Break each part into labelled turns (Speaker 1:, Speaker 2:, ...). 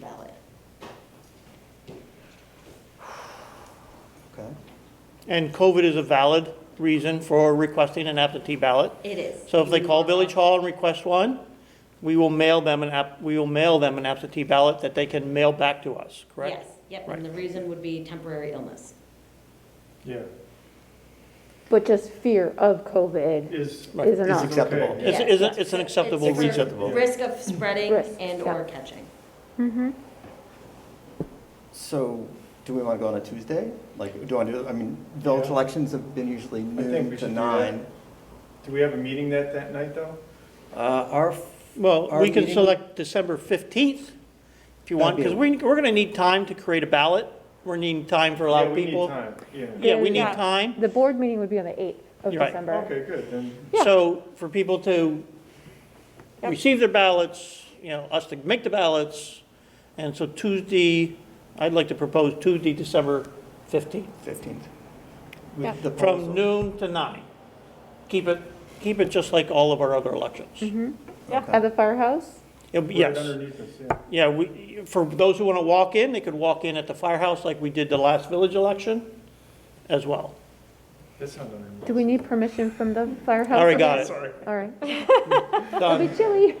Speaker 1: ballot.
Speaker 2: Okay.
Speaker 3: And COVID is a valid reason for requesting an absentee ballot.
Speaker 1: It is.
Speaker 3: So if they call Village Hall and request one, we will mail them an app, we will mail them an absentee ballot that they can mail back to us, correct?
Speaker 1: Yes, yep, and the reason would be temporary illness.
Speaker 4: Yeah,
Speaker 5: But just fear of COVID
Speaker 4: is,
Speaker 3: Right.
Speaker 5: is
Speaker 2: It's
Speaker 4: It's
Speaker 5: enough.
Speaker 2: acceptable.
Speaker 4: okay.
Speaker 3: It's,
Speaker 1: Yeah.
Speaker 3: it's, a- it's an acceptable
Speaker 1: It's a
Speaker 3: reason.
Speaker 2: Acceptable.
Speaker 1: Risk of spreading
Speaker 5: Risk,
Speaker 1: and/or
Speaker 5: yeah.
Speaker 1: catching.
Speaker 2: So, do we want to go on a Tuesday? Like, do I do, I mean, village
Speaker 4: Yeah.
Speaker 2: elections have been usually
Speaker 4: think
Speaker 2: noon
Speaker 4: we
Speaker 2: to
Speaker 4: should do that.
Speaker 2: nine.
Speaker 4: do we have a meeting that, that night, though?
Speaker 2: Uh, our,
Speaker 3: Well,
Speaker 2: Our
Speaker 3: we can
Speaker 2: meeting-
Speaker 3: select December 15th if you want,
Speaker 2: That'd
Speaker 3: because
Speaker 2: be-
Speaker 3: we, we're going to need time to create a ballot. We're needing time for a lot
Speaker 4: Yeah,
Speaker 3: of
Speaker 4: we need
Speaker 3: people.
Speaker 4: time, Yeah,
Speaker 3: Yeah, we need
Speaker 5: Yeah.
Speaker 3: time.
Speaker 5: The board meeting would be on the 8th of
Speaker 3: Right.
Speaker 5: December.
Speaker 4: okay, good, then,
Speaker 5: Yeah.
Speaker 3: So for people to receive their ballots, you know, us to make the ballots. And so Tuesday, I'd like to propose Tuesday, December 15th,
Speaker 2: fifteenth.
Speaker 5: Yeah.
Speaker 2: With the polls
Speaker 3: from
Speaker 2: open.
Speaker 3: noon to nine. Keep it, keep it just like all of our other
Speaker 5: Mm-hmm.
Speaker 3: elections.
Speaker 5: At the firehouse?
Speaker 3: It'll be-
Speaker 4: right
Speaker 3: Yes,
Speaker 4: underneath us, yeah.
Speaker 3: yeah, we, for those who want to walk in, they could walk in at the firehouse like we did the last village election as well.
Speaker 4: That's not underneath.
Speaker 5: Do we need permission from the firehouse?
Speaker 3: Already got it. Um,
Speaker 4: Sorry.
Speaker 5: All right. It'll
Speaker 3: Done.
Speaker 5: be chilly.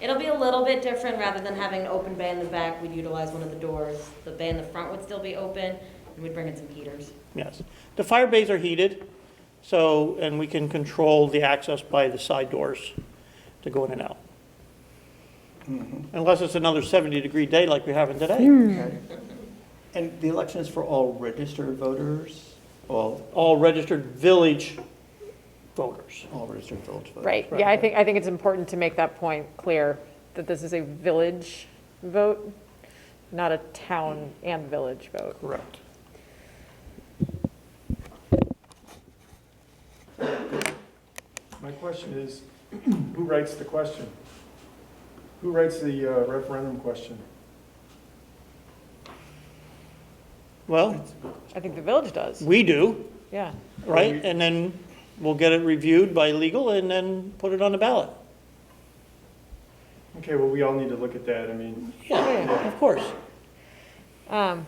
Speaker 1: It'll be a little bit different, rather than having an open bay in the back, we'd utilize one of the doors. The bay in the front would still be open, and we'd bring in some heaters.
Speaker 3: Yes. The fire bays are heated, so, and we can control the access by the side doors to go in and out. Unless it's another 70-degree day like we're having today.
Speaker 2: Okay. And the election is for all registered voters, all,
Speaker 3: All registered village voters.
Speaker 2: all registered village voters.
Speaker 6: Right, yeah, I think, I think it's important to make that point clear, that this is a village vote, not a town and village vote.
Speaker 3: Correct.
Speaker 4: My question is, who writes the question? Who writes the uh, referendum question?
Speaker 3: Well,
Speaker 6: I think the village does,
Speaker 3: we do,
Speaker 6: yeah.
Speaker 3: right? And then we'll get it reviewed by legal and then put it on the ballot.
Speaker 4: Okay, well, we all need to look at that, I mean,
Speaker 3: Yeah, of course.
Speaker 6: Um,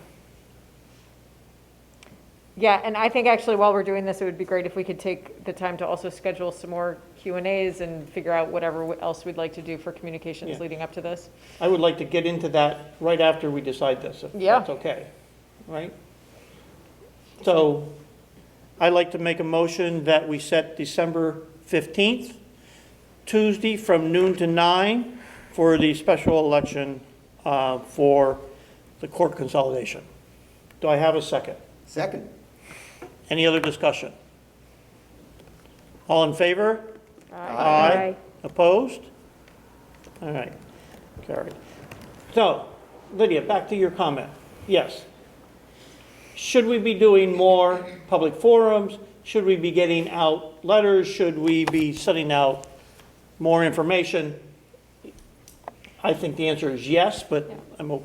Speaker 6: Yeah, and I think actually while we're doing this, it would be great if we could take the time to also schedule some more Q and As and figure out whatever else we'd like to do for
Speaker 3: Yeah.
Speaker 6: communications leading up to this.
Speaker 3: I would like to get into that right after we decide this, if
Speaker 6: Yeah.
Speaker 3: that's okay, right? So I'd like to make a motion that we set December 15th, Tuesday from noon to nine for the special election uh, for the court consolidation. Do I have a second?
Speaker 2: Second,
Speaker 3: Any other discussion? All in favor?
Speaker 5: Aye.
Speaker 3: Opposed? All right, carried. So, Lydia, back to your comment. Yes. Should we be doing more public forums? Should we be getting out letters? Should we be sending out more information? I think the answer is yes, but I'm, o-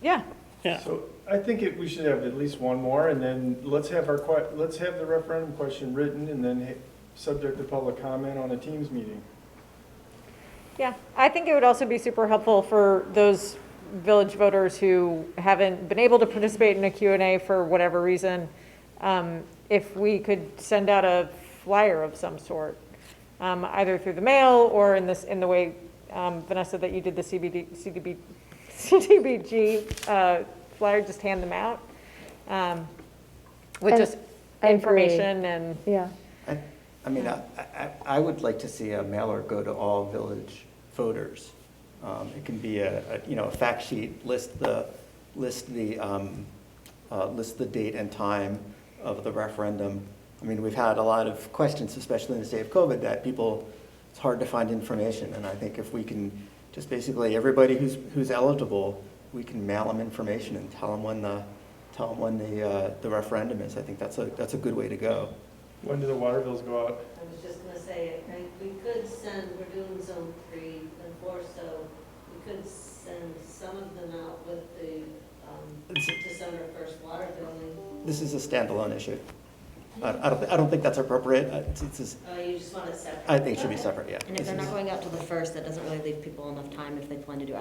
Speaker 6: Yeah,
Speaker 3: yeah,
Speaker 4: so I think it- we should have at least one more, and then let's have our, que- let's have the referendum question written, and then ha- subject to public comment on a Teams meeting.
Speaker 6: Yeah, I think it would also be super helpful for those village voters who haven't been able to participate in a Q and A for whatever reason, um, if we could send out a flyer of some sort, um, either through the mail or in this, in the way, um, Vanessa, that you did the CBD, CDB, CDBG uh, flyer, just hand them out um, with
Speaker 5: And
Speaker 6: just
Speaker 5: I agree.
Speaker 6: information and,
Speaker 5: Yeah.
Speaker 2: I, I mean, I, I, I would like to see a mailer go to all village voters. Um, it can be a, a, you know, a fact sheet, list the, list the, um, uh, list the date and time of the referendum. I mean, we've had a lot of questions, especially in the state of COVID, that people, it's hard to find information. And I think if we can, just basically, everybody who's, who's eligible, we can mail them information and tell them when the, tell them when the, uh, the referendum is. I think that's a, that's a good way to go.
Speaker 4: When do the water bills go out?
Speaker 7: I was just gonna say, I think we could send, we're doing zone three and four, so we could send some of them out with the, um, December first water billing.
Speaker 2: This is a standalone issue. I I don't, I don't think that's appropriate. I- it's- it's just-
Speaker 7: Oh, you just want it separate?
Speaker 2: I think it should be separate, yeah.
Speaker 1: And if
Speaker 2: This
Speaker 1: they're
Speaker 2: is-
Speaker 1: not going out till the first, that doesn't really leave people enough time if they plan to do